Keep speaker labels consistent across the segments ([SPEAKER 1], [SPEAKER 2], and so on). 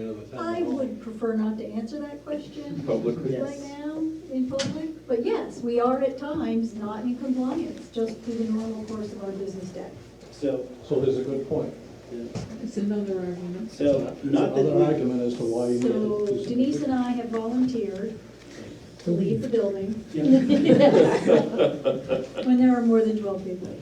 [SPEAKER 1] Another time.
[SPEAKER 2] I would prefer not to answer that question
[SPEAKER 1] Publicly.
[SPEAKER 2] right now in public, but yes, we are at times not in compliance, just through the normal course of our business day.
[SPEAKER 3] So,
[SPEAKER 4] So there's a good point.
[SPEAKER 5] It's another argument.
[SPEAKER 3] so
[SPEAKER 4] There's
[SPEAKER 3] not that
[SPEAKER 4] another
[SPEAKER 3] we,
[SPEAKER 4] argument as to why you need
[SPEAKER 2] So
[SPEAKER 4] to. do something.
[SPEAKER 2] Denise and I have volunteered to leave the building when there are more than twelve people.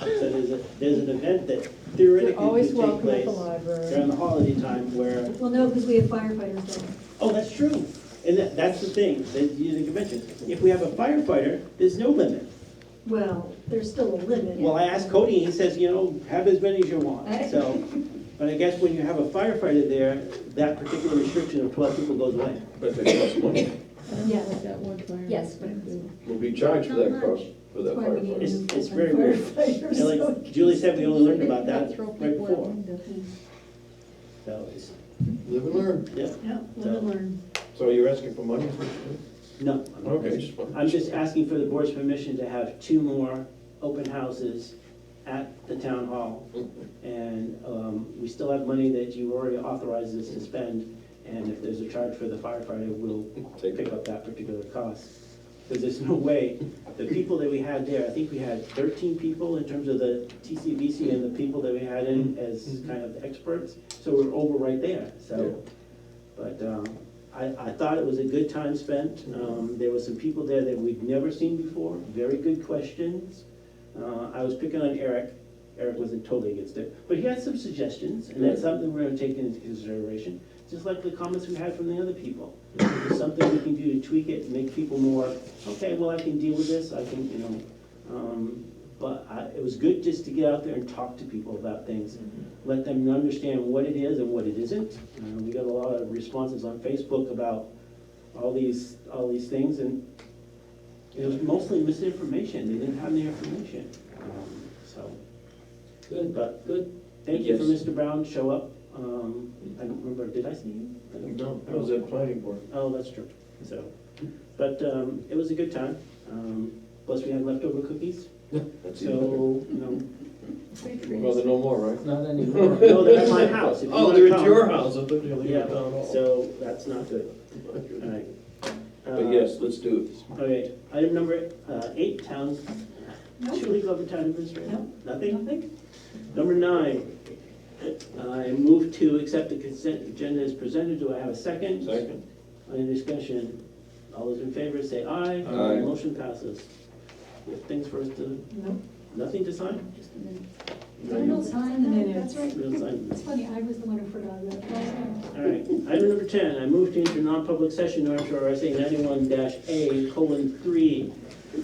[SPEAKER 3] so there's a, there's an event that theoretically
[SPEAKER 5] always
[SPEAKER 3] could take
[SPEAKER 5] welcome at
[SPEAKER 3] place
[SPEAKER 5] the library.
[SPEAKER 3] during the holiday time where,
[SPEAKER 2] Well, no, because we have firefighters there.
[SPEAKER 3] oh, that's true. And that, that's the thing, that you didn't mention. If we have a firefighter, there's no limit.
[SPEAKER 2] Well, there's still a
[SPEAKER 3] Well,
[SPEAKER 2] limit.
[SPEAKER 3] I asked Cody, he says, you know, have as many as you want, so. But I guess when you have a firefighter there, that particular restriction of twelve people goes away.
[SPEAKER 1] But they cost money.
[SPEAKER 5] I don't know
[SPEAKER 2] Yeah.
[SPEAKER 5] what that one fire
[SPEAKER 2] Yes,
[SPEAKER 5] would
[SPEAKER 2] but-
[SPEAKER 5] do.
[SPEAKER 1] We'll be charged for that
[SPEAKER 2] Not
[SPEAKER 1] cost,
[SPEAKER 2] much.
[SPEAKER 1] for that
[SPEAKER 2] That's why we
[SPEAKER 1] firefighter.
[SPEAKER 3] It's,
[SPEAKER 2] need-
[SPEAKER 3] it's very weird.
[SPEAKER 2] Firefighters,
[SPEAKER 3] And
[SPEAKER 2] so-
[SPEAKER 3] like Julie said, we only learned about that
[SPEAKER 5] Throw
[SPEAKER 3] right
[SPEAKER 5] people out
[SPEAKER 3] before,
[SPEAKER 5] windows.
[SPEAKER 3] so it's,
[SPEAKER 1] Live and learn.
[SPEAKER 3] yeah,
[SPEAKER 2] Yeah, live and learn.
[SPEAKER 1] So you're asking for money?
[SPEAKER 3] no.
[SPEAKER 1] Okay, just one.
[SPEAKER 3] I'm just asking for the board's permission to have two more open houses at the town hall. And um, we still have money that you already authorized us to spend, and if there's a charge for the firefighter, we'll
[SPEAKER 1] Take
[SPEAKER 3] pick
[SPEAKER 1] it.
[SPEAKER 3] up that particular cost. Because there's no way, the people that we had there, I think we had thirteen people in terms of the TCVC and the people that we had in as kind of experts, so we're over right there, so. But um, I, I thought it was a good time spent.
[SPEAKER 1] Mm-hmm.
[SPEAKER 3] Um, There were some people there that we'd never seen before, very good questions. Uh, I was picking on Eric, Eric wasn't totally against it, but he had some suggestions, and that's something we're gonna take into consideration, just like the comments we had from the other people. If there's something we can do to tweak it and make people more, okay, well, I can deal with this, I can, you know. um, But I, it was good just to get out there and talk to people about things, let them understand what it is and what it isn't. Uh, We got a lot of responses on Facebook about all these, all these things, and it was mostly misinformation, they didn't have the information, um, so.
[SPEAKER 6] Good,
[SPEAKER 3] But
[SPEAKER 6] good.
[SPEAKER 3] thank you for
[SPEAKER 6] Yes.
[SPEAKER 3] Mr. Brown, show up. Um, I don't remember, did I see you? I don't-
[SPEAKER 1] No, I was at planning board.
[SPEAKER 3] Oh, that's true, so, but um, it was a good time. Um, Plus, we had leftover cookies,
[SPEAKER 1] That's even better.
[SPEAKER 3] so, you know,
[SPEAKER 1] Well, they're no more, right?
[SPEAKER 6] Not anymore.
[SPEAKER 3] no, they're at my house. if you
[SPEAKER 1] Oh,
[SPEAKER 3] wanna
[SPEAKER 1] they're at
[SPEAKER 3] come.
[SPEAKER 1] your house, I thought you were leaving
[SPEAKER 3] Yeah,
[SPEAKER 1] town hall.
[SPEAKER 3] so that's not good, all right.
[SPEAKER 1] But yes, let's do it.
[SPEAKER 3] All right, item number uh, eight, town,
[SPEAKER 2] Nope,
[SPEAKER 3] Julie Glover, town administrator,
[SPEAKER 2] Nope.
[SPEAKER 3] nothing?
[SPEAKER 2] nothing?
[SPEAKER 3] Number nine, I move to accept the consent agenda as presented. Do I have a second?
[SPEAKER 1] Second.
[SPEAKER 3] Any discussion? All those in favor say aye.
[SPEAKER 1] Aye.
[SPEAKER 3] Motion passes. You have Things for us to,
[SPEAKER 2] Nope,
[SPEAKER 3] nothing to sign?
[SPEAKER 2] just a minute. I
[SPEAKER 3] No,
[SPEAKER 2] don't sign that, that's right.
[SPEAKER 3] you don't sign.
[SPEAKER 2] It's funny, I was the one who forgot that.
[SPEAKER 3] All right, item number ten, I move to enter non-public session under RSA ninety-one dash A colon three,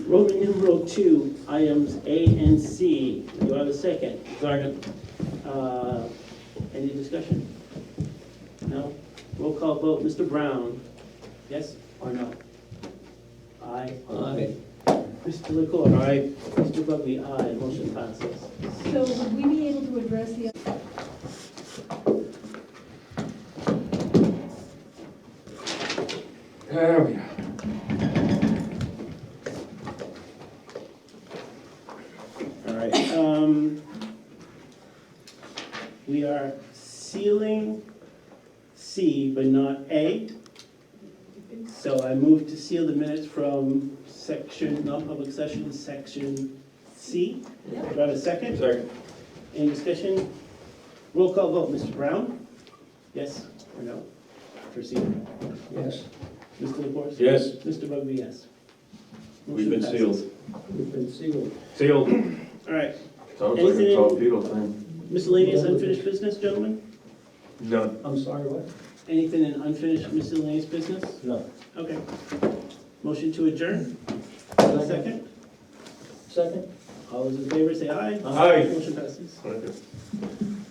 [SPEAKER 3] Roman numeral two, items A and C. Do I have a second?
[SPEAKER 1] Second.
[SPEAKER 3] Uh, Any discussion? No? Roll call vote, Mr. Brown, yes or no? Aye.
[SPEAKER 1] Aye.
[SPEAKER 3] Mr. Lecor. Aye. Mr. Bugby, aye, motion passes.
[SPEAKER 2] So would we be able to address the
[SPEAKER 1] There we are.
[SPEAKER 3] All right, um, we are sealing C, but not A. So I move to seal the minutes from section, non-public session, section C. Do I have a second?
[SPEAKER 1] Second.
[SPEAKER 3] Any discussion? Roll call vote, Mr. Brown? Yes or no? For C?
[SPEAKER 1] Yes.
[SPEAKER 3] Mr. LaFors?
[SPEAKER 1] Yes.
[SPEAKER 3] Mr. Bugby, yes.
[SPEAKER 1] We've been
[SPEAKER 3] Motion passes.
[SPEAKER 1] sealed.
[SPEAKER 6] We've been sealed.
[SPEAKER 1] Sealed.
[SPEAKER 3] All right,
[SPEAKER 1] Sounds like
[SPEAKER 3] Anything-
[SPEAKER 1] a torpedo thing.
[SPEAKER 3] miscellaneous unfinished business, gentlemen?
[SPEAKER 1] None.
[SPEAKER 6] I'm sorry, what?
[SPEAKER 3] Anything in unfinished miscellaneous business?
[SPEAKER 6] No.
[SPEAKER 3] Okay. Motion to adjourn, second.
[SPEAKER 6] Second?
[SPEAKER 3] All those in favor say aye.
[SPEAKER 1] Aye.
[SPEAKER 3] Motion passes.
[SPEAKER 1] Okay.